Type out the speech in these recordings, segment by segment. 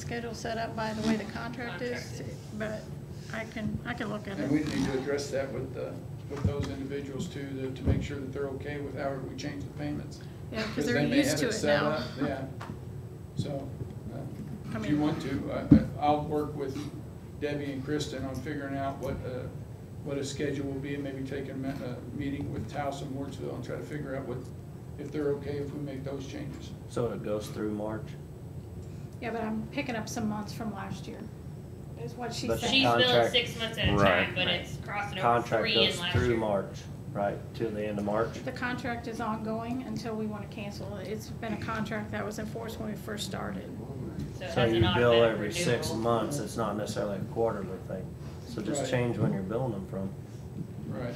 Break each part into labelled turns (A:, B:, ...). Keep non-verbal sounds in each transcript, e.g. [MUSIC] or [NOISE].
A: schedule set up by the way the contract is, but I can, I can look at
B: And we
A: it.
B: need to address that with, uh, with those individuals too, to, to make sure that they're okay with how we change the payments.
A: Yeah, because
B: Because
A: they're
B: they may
A: used
B: have
A: to it
B: set
A: now.
B: up, Yeah, so, uh,
A: I
B: if
A: mean-
B: you want to, I- I- I'll work with Debbie and Kristen on figuring out what, uh, what a schedule will be, and maybe take a, me- a meeting with Taos and Wardsville and try to figure out what, if they're okay if we make those changes.
C: So it goes through March?
A: Yeah, but I'm picking up some months from last year, is what she
C: But
A: said.
D: She's billed
C: Contract.
D: six months at a
E: Right,
D: time, but
E: right.
D: it's crossing over
C: Contract
D: three in
C: goes
D: last
C: through
D: year.
C: March, right, till the end of March?
A: The contract is ongoing until we want to cancel it. It's been a contract that was enforced when we first started.
D: So it
C: So
D: has
C: you
D: an
C: bill
D: automatic
C: every six
D: renewal.
C: months, it's not necessarily a quarterly thing. So just
B: Right.
C: change when you're billing them from,
B: Right.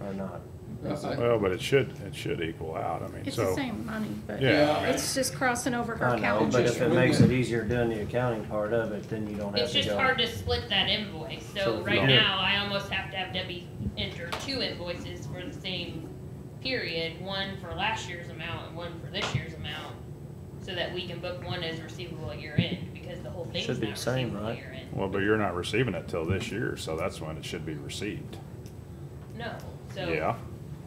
C: or not.
B: Uh, I-
E: Well, but it should, it should equal out, I mean,
A: It's the
E: so.
A: same money, but
E: Yeah,
B: I mean-
A: it's just crossing over her
C: I know, but
A: calendar.
C: if it
B: Just-
C: makes it easier doing the accounting part of it, then you don't have
D: It's
C: to
D: just
C: go.
D: hard to split that invoice,
C: So
D: so
C: if
D: right
E: you-
D: now, I almost have to have Debbie enter two invoices for the same period, one for last year's amount and one for this year's amount, so that we can book one as receivable at year end, because the whole thing's
C: Should be
D: not
C: the same,
D: receivable
C: right?
D: at year end.
E: Well, but you're not receiving it till this year, so that's when it should be received.
D: No, so.
E: Yeah,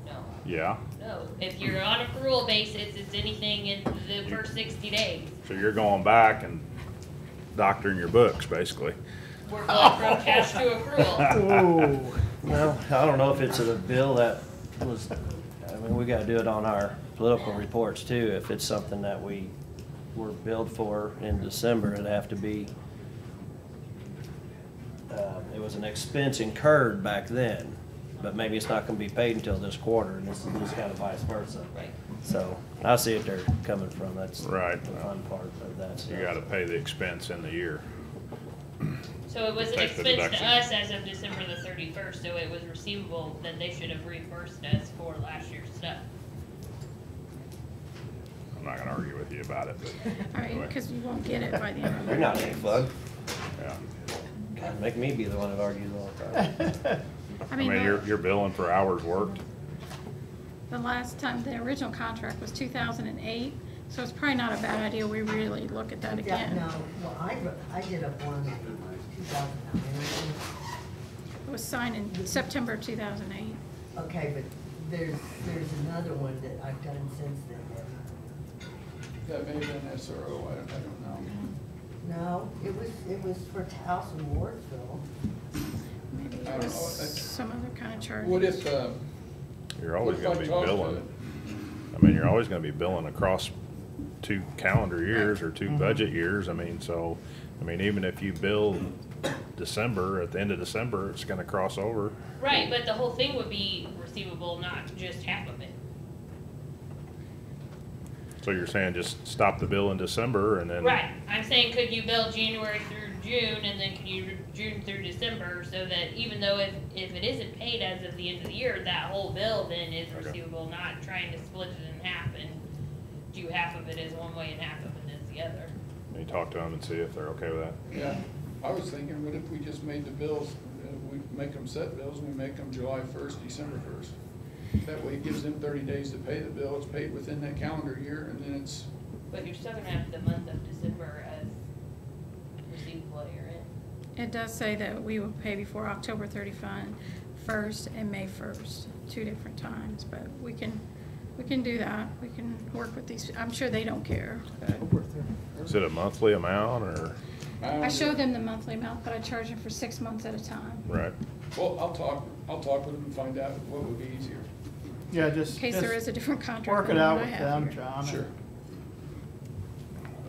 D: No,
E: yeah.
D: no, if you're on accrual basis, it's anything in the
E: You-
D: first sixty days.
E: So you're going back and doctoring your books, basically.
D: We're going from cash to
C: [LAUGHS]
D: accrual.
C: Oh, well, I don't know if it's a bill that was, I mean, we gotta do it on our political reports too. If it's something that we were billed for in December, it'd have to be, um, it was an expense incurred back then, but maybe it's not gonna be paid until this quarter, and this is kind of vice versa.
D: Right.
C: So, I see if they're coming from, that's the
E: Right.
C: fun part of that stuff.
E: You gotta pay the expense in the year.
D: So it was an
E: Take the
D: expense to
E: deduction.
D: us as of December the thirty-first, so it was receivable that they should have reimbursed us for last year's stuff.
E: I'm not gonna argue with you about it, but,
A: All right, because you won't get it by the end of the
C: You're not any fun.
E: yeah.
C: God, make me be the one that argues all the time.
A: I
E: I
A: mean, uh,
E: mean, you're,
A: the,
E: you're billing for hours worked.
A: the last time, the original contract was two thousand and eight, so it's probably not a bad idea we really look at that
F: Yeah,
A: again.
F: no, well, I, wrote- I did up one in two thousand nine.
A: It was signed in September two thousand and eight.
F: Okay, but there's, there's another one that I've done since then.
B: That may have been SRO, I don't, I don't know.
F: No, it was, it was for Taos and Wardsville.
A: Maybe
B: I
A: it
B: don't
A: was
B: know, I-
A: some other kind of charge.
B: Oh, What if, uh,
E: You're always
B: Looks
E: gonna be
B: like Tulsa.
E: billing. I mean, you're always gonna be billing across two calendar years or two
B: Mm-hmm.
E: budget years, I mean, so, I mean, even if you bill December, at the end of December, it's gonna cross over.
D: Right, but the whole thing would be receivable, not just half of it.
E: So you're saying just stop the bill in December and then.
D: Right, I'm saying could you bill January through June and then could you, June through December, so that even though if, if it isn't paid as of the end of the year, that whole bill then is
E: Okay.
D: receivable, not trying to split it in half and do half of it as one way and half of it as the other.
E: You talk to them and see if they're okay with that.
B: Yeah, I was thinking, what if we just made the bills, uh, we make them set bills, and we make them July first, December first? That way it gives them thirty days to pay the bill, it's paid within that calendar year, and then it's,
D: But you're still gonna have the month of December as receivable year in.
A: It does say that we will pay before October thirty-first and May first, two different times, but we can, we can do that. We can work with these, I'm sure they don't care.
E: Is it a monthly amount or,
B: I
A: I
B: don't
A: show
B: know.
A: them the monthly amount, but I charge them for six months at a time.
E: right?
B: Well, I'll talk, I'll talk with them and find out what would be easier.
G: Yeah, just.
A: In case there
G: just
A: is a different contract.
G: Work it
A: than
G: out
A: what I
G: with
A: have
G: them,
A: here.
G: John. and-
B: Sure,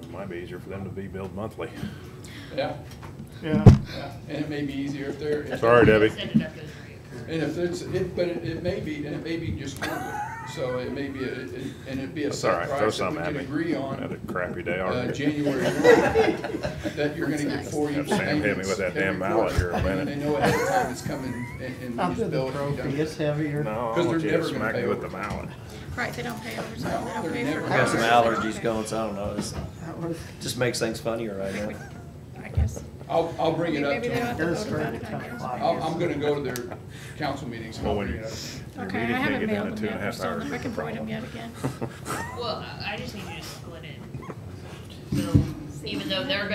E: It might be easier for them to be billed monthly.
B: yeah,
G: Yeah,
B: yeah, and it may be easier if they're. if-
E: Sorry, Debbie.
D: Set it up as reoccurring.
B: And if it's, it, but it, it may be, and it may be just quarterly, so it may be, a- it- and it'd be a
E: That's all
B: set
E: right, throw
B: price that we
E: something at
B: could
E: me.
B: agree on.
E: Had a crappy day
B: uh,
E: already. [LAUGHS]
B: January one, that you're gonna get four
E: Have
B: equal
E: Sam hit me
B: payments
E: with that damn
B: every
E: mallet here
B: quarter.
E: in a
B: And they
E: minute.
B: know ahead of time it's coming and, and
G: I'll
B: you
G: do
B: just bill
G: the
B: it. if you
G: trophy,
B: don't.
G: it's heavier.
E: No, I
B: 'Cause
E: want
B: they're
E: you to
B: never gonna
E: smack
B: pay
E: me with the
B: over.
E: mallet.
A: Right, they don't pay overtime, they don't
B: They're
A: pay
B: never
A: for.
B: I
C: I got some
A: overtime.
C: allergies going, so I don't know. It's-
G: That was,
C: Just makes things funnier right now.
A: I guess.
B: I'll, I'll bring it up
A: Maybe
B: to
A: they don't have
B: them.
A: to
G: That's
A: vote about
G: great.
A: it, I guess.
B: I'll, I'm gonna go to their council meetings and
E: Well,
B: I'll
E: when
B: bring
E: you-
B: it up.
E: your
A: Okay, I
E: meeting may
A: haven't
E: get done
A: mailed
E: in
A: them
E: two
A: yet,
E: and a
A: we're
E: half
A: still,
E: hours.
A: I can void them yet again.
E: [LAUGHS]
D: Well, I I just need you to split it. So even though they're gonna